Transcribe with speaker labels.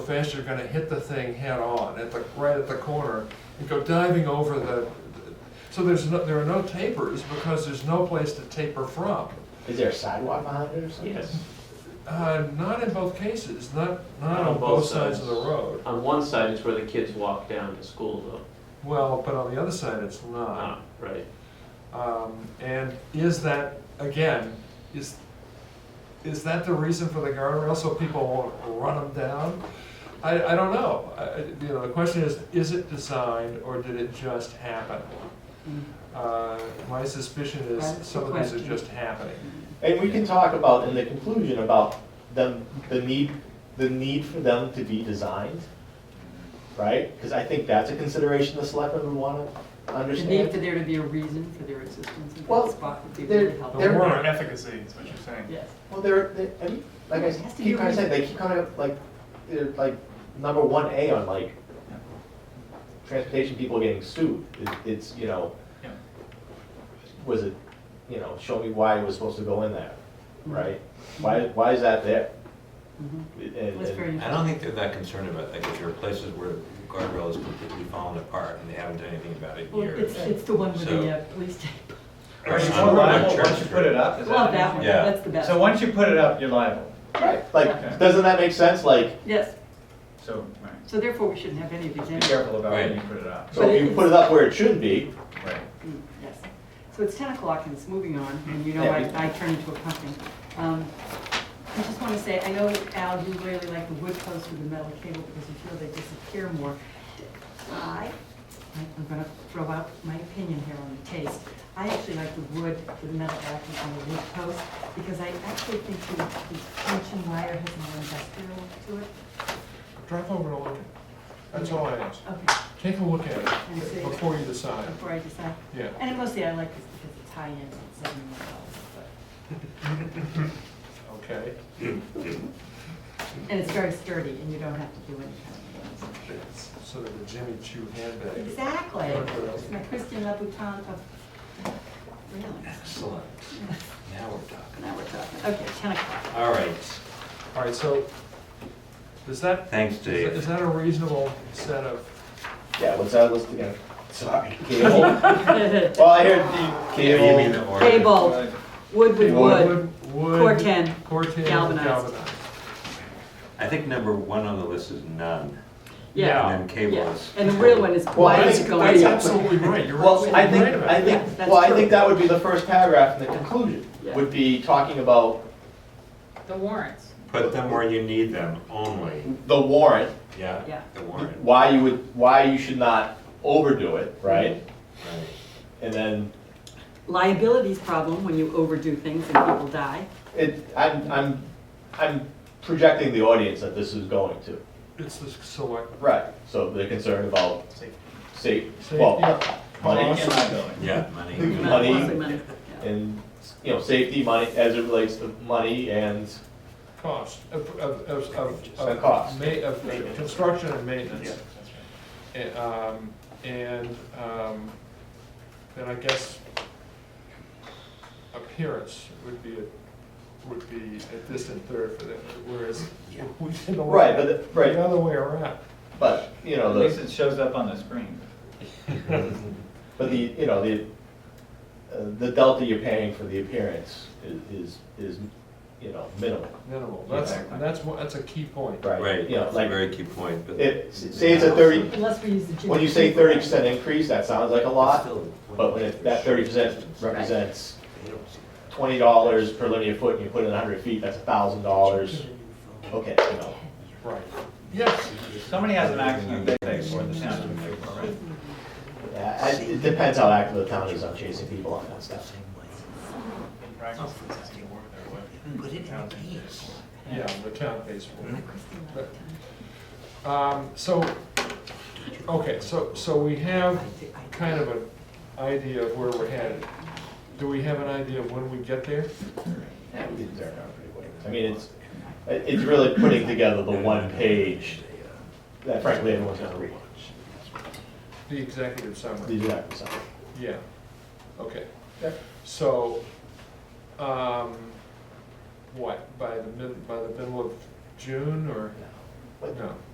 Speaker 1: fast you're gonna hit the thing head on at the, right at the corner and go diving over the, so there's no, there are no tapers because there's no place to taper from.
Speaker 2: Is there a sidewalk behind it or something?
Speaker 3: Yes.
Speaker 1: Uh, not in both cases, not, not on Ah, both sides Um, of the road.
Speaker 3: On one side is where the kids walk down to school though.
Speaker 1: Well, but on the other side, it's not.
Speaker 3: Ah, right.
Speaker 1: Um, and is that, again, is, is that the reason for the guardrail, so people won't run them down? I, I don't know, I, I- you know, the question is, is it designed or did it just happen? Uh, my suspicion
Speaker 4: That's the
Speaker 1: is some of these are
Speaker 4: question.
Speaker 1: just happening.
Speaker 2: And we can talk about in the conclusion about them, the need, the need for them to be designed, right? Because I think that's a consideration the selectmen would want to
Speaker 4: The need for
Speaker 2: understand.
Speaker 4: there to be a reason for their existence in
Speaker 2: Well,
Speaker 4: that spot would be
Speaker 2: there-
Speaker 4: really helpful.
Speaker 1: The
Speaker 2: They're-
Speaker 1: warrant-
Speaker 5: Or efficacy, is what you're saying.
Speaker 4: Yes.
Speaker 2: Well, they're, they- I mean, like I
Speaker 4: It has to be
Speaker 2: keep kind of
Speaker 4: reasonable.
Speaker 2: saying, they keep kind of like, they're like number one A on like transportation people getting sued. It- It's, you know,
Speaker 5: Yeah.
Speaker 2: was it, you know, show me why it was supposed to go in there,
Speaker 4: Mm-hmm.
Speaker 2: right? Why, why is that there?
Speaker 4: Mhm.
Speaker 2: And-
Speaker 4: That's
Speaker 2: and-
Speaker 4: very
Speaker 6: I
Speaker 4: interesting.
Speaker 6: don't think they're that concerned about, like, if there are places where the guardrail is completely fallen apart and they haven't done anything about it in
Speaker 4: Well, it's,
Speaker 6: years.
Speaker 4: it's the one with
Speaker 6: So-
Speaker 4: the uh, police tape.
Speaker 6: Or
Speaker 7: Are you
Speaker 6: on-
Speaker 7: more
Speaker 6: on Church
Speaker 7: liable once you put
Speaker 6: Street.
Speaker 7: it up? Is
Speaker 4: Well,
Speaker 7: that-
Speaker 4: that one,
Speaker 6: Yeah.
Speaker 4: that's the best.
Speaker 7: So once you put it up, you're liable,
Speaker 2: Right, like,
Speaker 7: Okay.
Speaker 2: doesn't that make sense? Like,
Speaker 4: Yes,
Speaker 7: so, right.
Speaker 4: so therefore we shouldn't have any of these
Speaker 7: be
Speaker 4: anyway.
Speaker 7: careful about when
Speaker 6: Right.
Speaker 7: you put it up.
Speaker 2: so if you put it up where it should be,
Speaker 7: Right.
Speaker 4: Mm, Yes. So it's 10 o'clock and it's moving on, and you know
Speaker 2: Yeah,
Speaker 4: I,
Speaker 2: we-
Speaker 4: I turn into a pumpkin. Um, I just want to say, I know, Al, you really like the wood posts with the metal cable because you feel they disappear more. I, I'm going to throw out my opinion here on the taste. I actually like the wood, the metal backing on the wood post because I actually think the the tension wire has more industrial to it.
Speaker 1: Drive over to Logan, that's all I ask.
Speaker 4: Okay,
Speaker 1: Take a look at
Speaker 4: I see.
Speaker 1: it before you decide,
Speaker 4: before I decide.
Speaker 1: yeah.
Speaker 4: And mostly I like this because it's high-end, it's seven years but.
Speaker 1: Okay,
Speaker 4: And it's very sturdy and you don't have to do any kind of things.
Speaker 1: sort of a Jimmy Choo handbag.
Speaker 4: Exactly.
Speaker 1: Guardrail.
Speaker 4: It's my Christian Louboutin of, really?
Speaker 6: Excellent. Now we're talking.
Speaker 4: Now we're talking, okay, 10 o'clock.
Speaker 6: All right,
Speaker 1: All right, so, is that,
Speaker 6: thanks,
Speaker 1: is
Speaker 6: Dave.
Speaker 1: that a reasonable set of
Speaker 2: yeah, what's that list again? Sorry. Cable. Well, I heard the
Speaker 6: You mean the
Speaker 2: cable.
Speaker 6: order?
Speaker 4: Cable, wood with wood,
Speaker 1: Wood, wood.
Speaker 4: core 10,
Speaker 1: Core ten,
Speaker 4: galvanized.
Speaker 1: galvanized.
Speaker 6: I think number one on the list is none,
Speaker 1: Yeah.
Speaker 4: yeah.
Speaker 6: and then cable
Speaker 4: yeah.
Speaker 6: is.
Speaker 4: And the real one is
Speaker 2: Well, I
Speaker 4: why it's
Speaker 1: That's
Speaker 2: think-
Speaker 4: going up.
Speaker 1: absolutely right, you're
Speaker 2: Well, I
Speaker 1: absolutely
Speaker 2: think,
Speaker 1: right about
Speaker 2: I
Speaker 1: that.
Speaker 2: think, well, I think that would be the first paragraph in the conclusion,
Speaker 4: Yeah.
Speaker 2: would be talking about
Speaker 8: The warrants.
Speaker 6: Put them where you need them only,
Speaker 2: the warrant,
Speaker 6: yeah,
Speaker 4: Yeah.
Speaker 6: the warrant,
Speaker 2: why you would, why you should not overdo it, right?
Speaker 6: right.
Speaker 2: And then,
Speaker 4: Liabilities problem when you overdo things and people die.
Speaker 2: it, I'm, I'm, I'm projecting the audience that this is going to.
Speaker 1: It's the select,
Speaker 2: Right. So they're concerned about
Speaker 7: Safety.
Speaker 2: safe,
Speaker 1: Safety.
Speaker 2: well, money,
Speaker 7: And liability.
Speaker 6: Yeah, money.
Speaker 2: Mhm.
Speaker 4: Not
Speaker 2: Money.
Speaker 4: mostly money, yeah.
Speaker 2: and, you know, safety, money, as it relates to money and,
Speaker 1: cost of, of, of, of.
Speaker 2: The
Speaker 1: of
Speaker 2: cost.
Speaker 1: ma- Of, of construction and
Speaker 7: Yeah,
Speaker 1: maintenance.
Speaker 7: that's right.
Speaker 1: And, um, and, um, then I guess appearance would be, a- would be a distant third for them, whereas we did the.
Speaker 2: Right, but the- right.
Speaker 1: The other way around.
Speaker 2: but, you know,
Speaker 7: At least
Speaker 2: the,
Speaker 7: it shows up on the screen.
Speaker 2: but the, you know, the, uh, the delta you're paying for the appearance i- is, is, you know, minimal.
Speaker 1: Minimal, that's,
Speaker 7: Exactly.
Speaker 1: that's, one- that's a key point.
Speaker 6: Right,
Speaker 2: You know,
Speaker 6: that's a
Speaker 2: like,
Speaker 6: very key point, but.
Speaker 2: it, say it's a thirty,
Speaker 4: Unless we use the.
Speaker 2: when you say thirty percent increase, that sounds like a lot, but when it- that thirty percent represents twenty dollars per linear foot and you put in a hundred feet, that's a thousand dollars. Okay, you know,
Speaker 1: Right. Yes,
Speaker 7: Somebody has an accident, they pay for it, the town doesn't pay for it.
Speaker 2: Yeah, I- it depends how active the town is on chasing people on that stuff.
Speaker 5: In practice, it doesn't work that way.
Speaker 9: Put it in
Speaker 5: Sounds
Speaker 9: the case.
Speaker 1: yeah, the town pays for it. Um, so, okay, so, so we have kind of an idea of where we're headed. Do we have an idea of when we get there?
Speaker 2: Yeah, we did turn out pretty well. I mean, it's, it- it's really putting together the one page that frankly everyone's gonna read.
Speaker 1: The executive
Speaker 2: The
Speaker 1: summary,
Speaker 2: exact summary.
Speaker 1: yeah, okay.
Speaker 2: Yep.
Speaker 1: So, um, what, by the mid, by the middle of June or,
Speaker 2: But
Speaker 1: no?